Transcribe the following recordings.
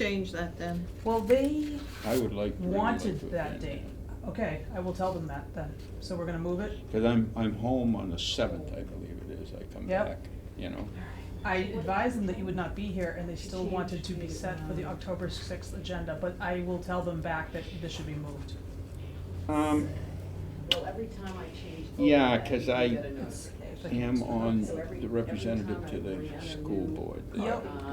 Change that then. Well, they I would like. really like wanted to that attend date. Okay, I will tell them that then. So we're gonna move it. Cause I'm, I'm home on the seventh, I believe it is, I come Yep. back, you know, I advised them that you would not be here and they still wanted to be set for the um, October sixth agenda, but I will tell them back that this should be moved. um, Well, every time I change. Yeah, that, 'cause you I- get a notice. am on So every- the representative to every time I bring the on a school new, board. Yep.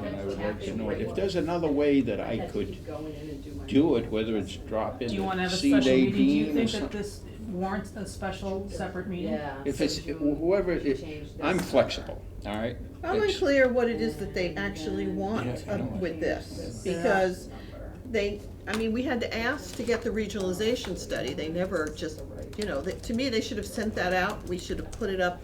And I would like to know, if there's another way that I had to could keep going in and my- do it, whether it's drop in Do you wanna the have a seat special meeting? Do you eighteen or think that something. this warrants a special separate meeting? Yeah. If so it's, June, whoever, you it- change this I'm summer. flexible, all right? I'm It's- unclear what it is that they actually want um, Yeah, I don't- with this, Yeah. because Number. they, I mean, we had to ask to get the regionalization study, they never just, you know, that, to me, they should have sent that out, we should have put it up.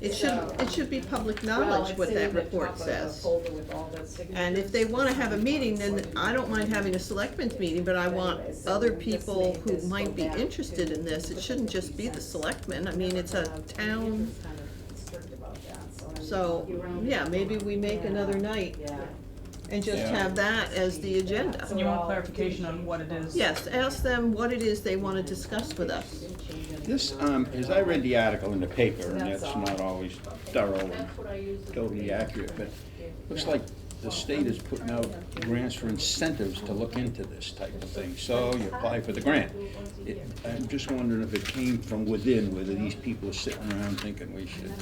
It should, it should be public knowledge what that report says. Well, it's in the top of the folder with all the signatures. And if they wanna have a meeting, then I don't mind having a selectmen's meeting, but I want other people who might be interested in this, it shouldn't just be the selectmen, I mean, it's a town, It's Uh, kind of strict about that, so I mean, so, you're on- yeah, maybe we make another night Yeah. and just Yeah. have that as the agenda. And you want clarification on what it is? Yes, ask them what it is they wanna discuss with us. This, um, as I read the article in the paper, and That's that's all. not always thorough and totally accurate, but looks like the state is putting out grants for incentives to look into this type of thing. So you apply for the grant. It- I'm just wondering if it came from within, whether these people are sitting around thinking we should.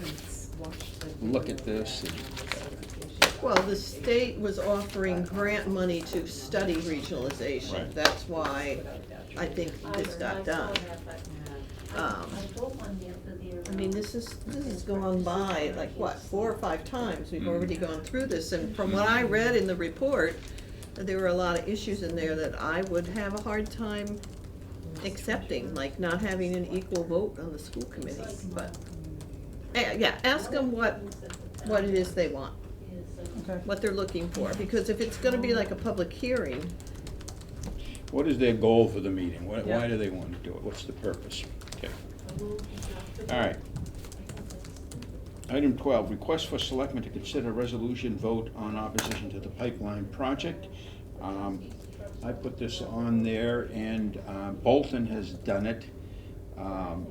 Look at this and- Well, the state was offering grant money to study regionalization, Right. that's why I think this got done. Um, I mean, this is, this has gone by, like, what, four or five times, we've Mm. already gone through this, and from what I read in the report, there were a lot of issues in there that I would have a hard time accepting, like not having an equal vote on the school committee, but, eh, yeah, ask them what, what it is uh, they want Okay. what they're looking for, because if it's gonna be like a public hearing, What is their goal for the meeting? Why, why Yeah. do they want to do it? What's the purpose? Okay. All right. Item twelve, request for selectmen to consider resolution vote on opposition to the pipeline project. Um, I put this on there and uh, Bolton has done it. Um,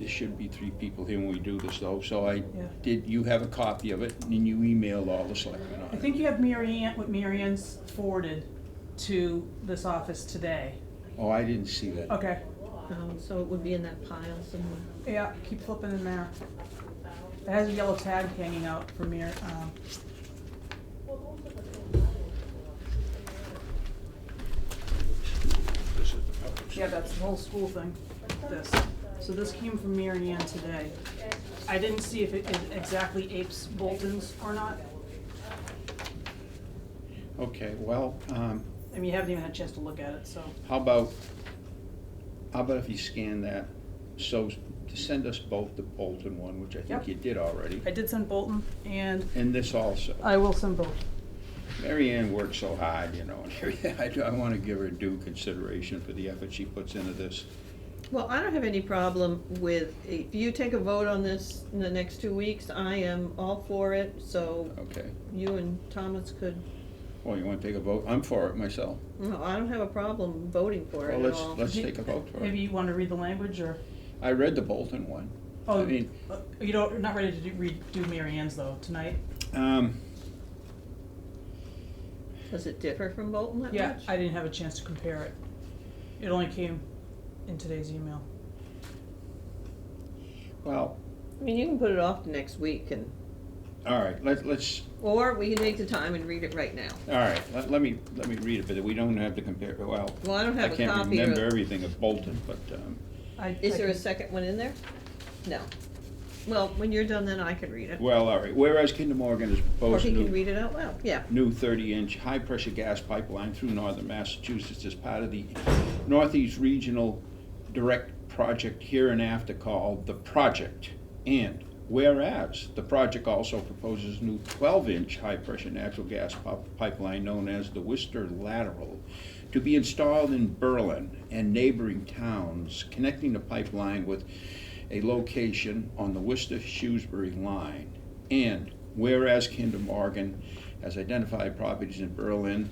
There should be three people here when we do this though, so I Yeah. did, you have a copy of it and you emailed all the selectmen on it. I think you have Mary Ann, what Mary Ann's forwarded to this office today. Oh, I didn't see that. Okay, um, so it would be in that pile somewhere. yeah, keep flipping in there. It has a yellow tag hanging out for Mir, um, This is the public. Yeah, that's the whole school thing, this. So this came from Mary Ann today. I didn't see if it it exactly apes Bolton's or not. Oh. Okay, well, um, I mean, you haven't even had a chance to look at it, so. how about, how about if you scan that? So to send us both the Bolton one, which I think Yep. you did already. I Uh, did send Bolton and And this also. I will send both. Mary Ann worked so hard, you know, and I, do- I wanna give her due consideration for the effort she puts into this. Well, I don't have any problem with, if you take a vote on this in the next two weeks, I am all for it, so Okay, you and Thomas could, well, you wanna take a vote? I'm for it myself. no, I don't have a problem voting for it Well, at let's, all. let's take a vote for Maybe it. you want to read the language or, I read the Bolton one. oh, I mean, uh, you don't, you're not ready to do, redo Mary Ann's though tonight? um, Does it differ from Bolton that much? Yeah, I didn't have a chance to compare it. It only came in today's email. well, I mean, you can put it off to next week and, all right, let, let's, or we can make the time and read it right now. all right, let, let me, let me read it, but we don't have to compare, well, Well, I don't I have a copy of. can't remember everything of Bolton, but, um, I- I Is there a can- second one in there? No. Well, when you're done, then I can read it. well, all right. Whereas Kinder Morgan has Or proposed he new. can read it out loud, yeah. new 30-inch high-pressure gas pipeline through northern Massachusetts as part of the Northeast Regional Direct Project hereinafter called the Project. And whereas the project also proposes new 12-inch high-pressure natural gas pop- pipeline known as the Worcester Lateral to be installed in Berlin and neighboring towns, connecting the pipeline with a location on the Worcester-Shrewsbury line. And whereas Kinder Morgan has identified properties in Berlin